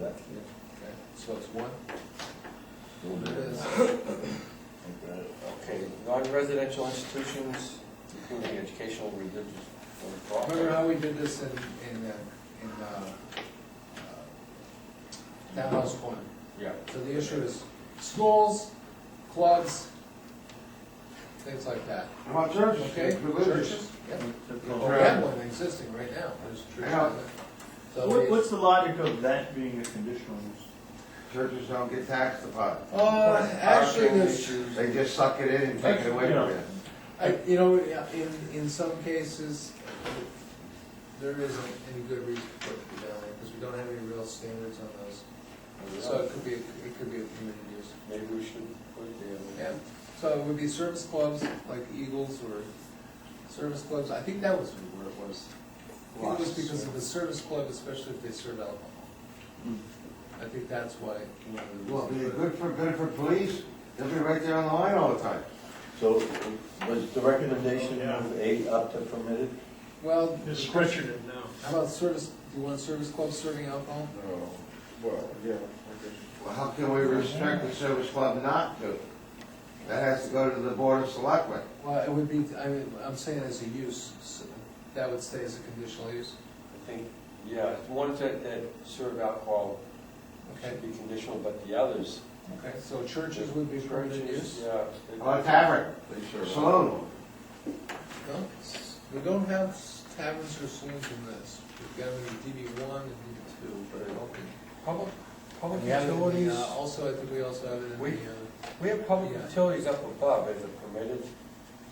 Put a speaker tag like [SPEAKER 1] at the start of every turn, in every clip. [SPEAKER 1] Okay, so it's one?
[SPEAKER 2] Okay, non-residential institutions, including educational, religious, or
[SPEAKER 1] Remember how
[SPEAKER 2] profit.
[SPEAKER 1] we did this in, in, uh, in, uh, uh, townhouse one?
[SPEAKER 2] Yeah.
[SPEAKER 1] So the issue is schools, clubs, things like that,
[SPEAKER 3] About churches,
[SPEAKER 1] okay?
[SPEAKER 3] religious.
[SPEAKER 1] Churches? Yep.
[SPEAKER 3] Oh,
[SPEAKER 1] We
[SPEAKER 3] yeah.
[SPEAKER 1] have one existing right now.
[SPEAKER 3] Yeah.
[SPEAKER 1] So
[SPEAKER 4] What,
[SPEAKER 1] we-
[SPEAKER 4] what's the logic of that being a conditional use?
[SPEAKER 3] Churches don't get taxed upon it.
[SPEAKER 1] Uh, actually,
[SPEAKER 2] Parking
[SPEAKER 1] there's,
[SPEAKER 2] issues,
[SPEAKER 3] They just suck it in and take it away from you.
[SPEAKER 1] I, you know, in, in some cases, there isn't any good reason for it to be down there, because we don't have any real standards on those. So it could be, it could be a community use.
[SPEAKER 2] Maybe we should put it
[SPEAKER 1] Yeah,
[SPEAKER 2] there.
[SPEAKER 1] so it would be service clubs, like Eagles or service clubs, I think that was where it was. I think it was because of the service club, especially if they serve alcohol.
[SPEAKER 4] Hmm.
[SPEAKER 1] I think that's why. one of the
[SPEAKER 3] Well, they're
[SPEAKER 1] reasons for it.
[SPEAKER 3] good for, good for police, they'll be right there on the line all the time.
[SPEAKER 5] So was the recommendation of eight up to permitted?
[SPEAKER 1] Well,
[SPEAKER 6] They're stretching it now.
[SPEAKER 1] how about service, do you want service clubs serving alcohol?
[SPEAKER 5] Oh,
[SPEAKER 2] No, well, yeah.
[SPEAKER 3] Well, how can we restrict the service club not to? That has to go to the board of selectmen.
[SPEAKER 1] Well, it would be, I mean, I'm saying as a use, so that would stay as a conditional use.
[SPEAKER 2] I think, yeah, the ones that, that serve alcohol
[SPEAKER 1] Okay,
[SPEAKER 2] should be conditional, but the others.
[SPEAKER 1] okay, so churches would be permitted use? Oh,
[SPEAKER 2] Yeah. they-
[SPEAKER 3] Or a tavern, saloon.
[SPEAKER 1] No, it's- we don't have taverns or saloons in this. We've got them in DB one and DB two, but I don't think.
[SPEAKER 2] Public, public
[SPEAKER 1] We have it in the, uh,
[SPEAKER 2] utilities,
[SPEAKER 1] Also, I think we also have it in
[SPEAKER 2] We-
[SPEAKER 1] the, uh,
[SPEAKER 2] we have public
[SPEAKER 1] Yeah.
[SPEAKER 2] utilities up above, is it permitted?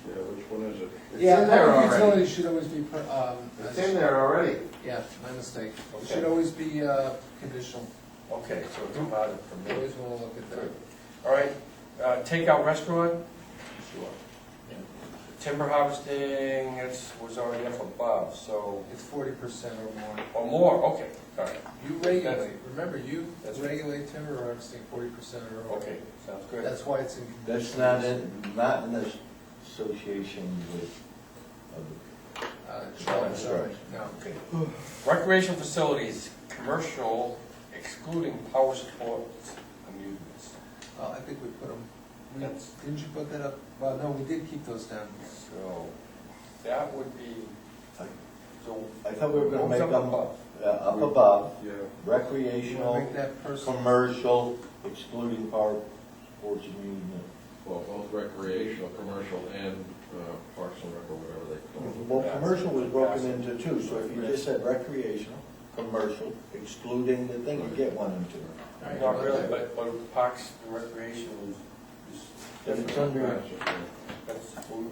[SPEAKER 5] Yeah, which one is it?
[SPEAKER 3] It's in there
[SPEAKER 1] Public
[SPEAKER 3] already.
[SPEAKER 1] utilities should always be, per- um,
[SPEAKER 3] It's in there already.
[SPEAKER 1] yeah, my mistake. It
[SPEAKER 2] Okay.
[SPEAKER 1] should always be, uh, conditional.
[SPEAKER 2] Okay, so it's not a
[SPEAKER 1] We
[SPEAKER 2] permitted.
[SPEAKER 1] Always wanna look at that.
[SPEAKER 2] Good. All right, uh, takeout restaurant? Sure. Timber harvesting, it's, was already up above, so,
[SPEAKER 1] It's forty percent or more.
[SPEAKER 2] or more, okay, all right,
[SPEAKER 1] You regulate, remember, you
[SPEAKER 2] That's-
[SPEAKER 1] regulate timber harvesting forty percent or more.
[SPEAKER 2] okay, sounds good.
[SPEAKER 1] That's why it's in.
[SPEAKER 5] That's not in, not in this association with, of-
[SPEAKER 1] Uh, challenge, sorry,
[SPEAKER 5] Right.
[SPEAKER 1] no.
[SPEAKER 5] okay.
[SPEAKER 2] Recreation facilities, commercial excluding power sports amusements.
[SPEAKER 1] Uh, I think we put them, we,
[SPEAKER 2] That's-
[SPEAKER 1] didn't you put that up? Well, no, we did keep those down.
[SPEAKER 2] So, that would be, so.
[SPEAKER 5] I thought we were gonna
[SPEAKER 2] What was
[SPEAKER 5] make
[SPEAKER 2] up
[SPEAKER 5] them, uh,
[SPEAKER 2] above?
[SPEAKER 5] up above,
[SPEAKER 6] Yeah.
[SPEAKER 1] You wanna make
[SPEAKER 5] recreational,
[SPEAKER 1] that personal?
[SPEAKER 5] commercial, excluding power sports amusement.
[SPEAKER 7] Well, both recreational, commercial, and uh, parks and rec, or whatever they call it.
[SPEAKER 5] Well, commercial was broken into two, so if you just said recreational, commercial, excluding the thing, you get one and two.
[SPEAKER 1] Alright,
[SPEAKER 2] Not
[SPEAKER 1] well,
[SPEAKER 2] really,
[SPEAKER 1] that-
[SPEAKER 2] but, but parks and recreation is, is,
[SPEAKER 5] If it's under,
[SPEAKER 2] that's,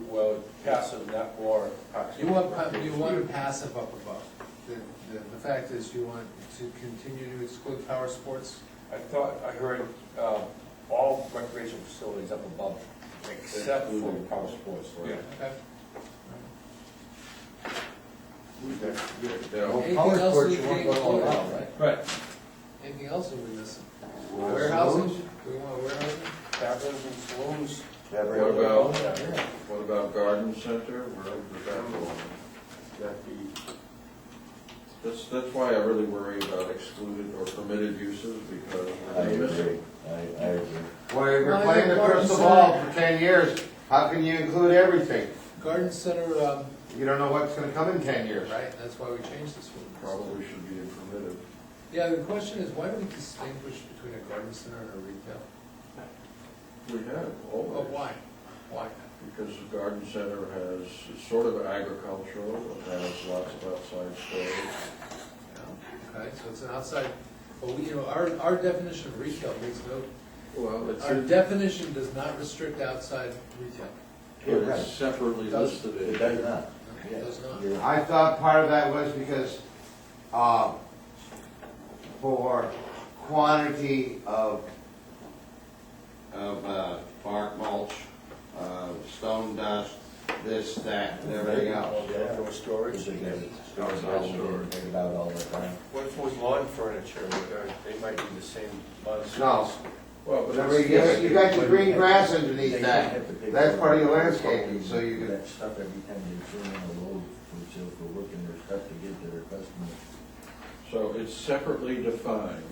[SPEAKER 2] well, passive, not more. parks
[SPEAKER 1] You
[SPEAKER 2] and
[SPEAKER 1] want, pa-
[SPEAKER 2] recreation.
[SPEAKER 1] you want passive up above. The, the, the fact is you want to continue to exclude power sports.
[SPEAKER 2] I thought, I heard, uh, all recreation facilities up above, except for
[SPEAKER 7] Including
[SPEAKER 2] power sports, right?
[SPEAKER 1] Okay.
[SPEAKER 7] Now,
[SPEAKER 1] Anything
[SPEAKER 5] power
[SPEAKER 1] else
[SPEAKER 5] sports,
[SPEAKER 1] we
[SPEAKER 5] you won't
[SPEAKER 1] can
[SPEAKER 5] go
[SPEAKER 1] include?
[SPEAKER 5] allowed, right?
[SPEAKER 2] Right.
[SPEAKER 1] Anything else are we missing?
[SPEAKER 3] Well,
[SPEAKER 1] Warehousing,
[SPEAKER 3] saloons?
[SPEAKER 1] do we want warehousing?
[SPEAKER 2] Taverns and saloons.
[SPEAKER 5] Every
[SPEAKER 7] What
[SPEAKER 5] other
[SPEAKER 7] about-
[SPEAKER 5] one?
[SPEAKER 2] Yeah.
[SPEAKER 7] what about garden center, where does that go?
[SPEAKER 2] That'd be-
[SPEAKER 7] That's, that's why I really worry about excluded or permitted uses, because
[SPEAKER 5] I
[SPEAKER 7] we're gonna miss
[SPEAKER 5] agree,
[SPEAKER 7] it.
[SPEAKER 5] I, I agree.
[SPEAKER 3] Well, if you're
[SPEAKER 1] Well,
[SPEAKER 3] playing
[SPEAKER 1] you're
[SPEAKER 3] the
[SPEAKER 1] going
[SPEAKER 3] crystal
[SPEAKER 1] to-
[SPEAKER 3] ball for ten years, how can you include everything?
[SPEAKER 1] Garden center, um,
[SPEAKER 3] You don't know what's gonna come in ten years.
[SPEAKER 1] right, that's why we changed this one.
[SPEAKER 7] Probably should be permitted.
[SPEAKER 1] Yeah, the question is, why do we distinguish between a garden center and a retail?
[SPEAKER 7] We have,
[SPEAKER 1] But
[SPEAKER 7] always,
[SPEAKER 1] why? Why?
[SPEAKER 7] because the garden center has, it's sort of agricultural, it has lots of outside storage.
[SPEAKER 1] Yeah, Okay, so it's an outside, but we, you know, our, our definition of retail makes no,
[SPEAKER 7] Well, it's,
[SPEAKER 1] our
[SPEAKER 7] in-
[SPEAKER 1] definition does not restrict outside retail.
[SPEAKER 7] it's separately
[SPEAKER 1] Does-
[SPEAKER 7] listed.
[SPEAKER 5] It does not.
[SPEAKER 1] Okay, It does not.
[SPEAKER 5] You're-
[SPEAKER 3] I thought part of that was because, um, for quantity of, of, uh, bark mulch, uh, stone dust, this, that, and everything else.
[SPEAKER 2] Outdoor storage.
[SPEAKER 5] It's again, it's
[SPEAKER 7] Not
[SPEAKER 5] about-
[SPEAKER 7] sure.
[SPEAKER 5] it's about all the time.
[SPEAKER 2] What if it was lawn furniture, Uh, they might be the same months.
[SPEAKER 3] No,
[SPEAKER 7] Well, but
[SPEAKER 3] remember,
[SPEAKER 7] it's-
[SPEAKER 3] you got, you got your green grass underneath that, that's part of your landscaping, so you can,
[SPEAKER 5] That stuff every time they turn on the road, which is for working their stuff to get to their customers.
[SPEAKER 7] So it's separately defined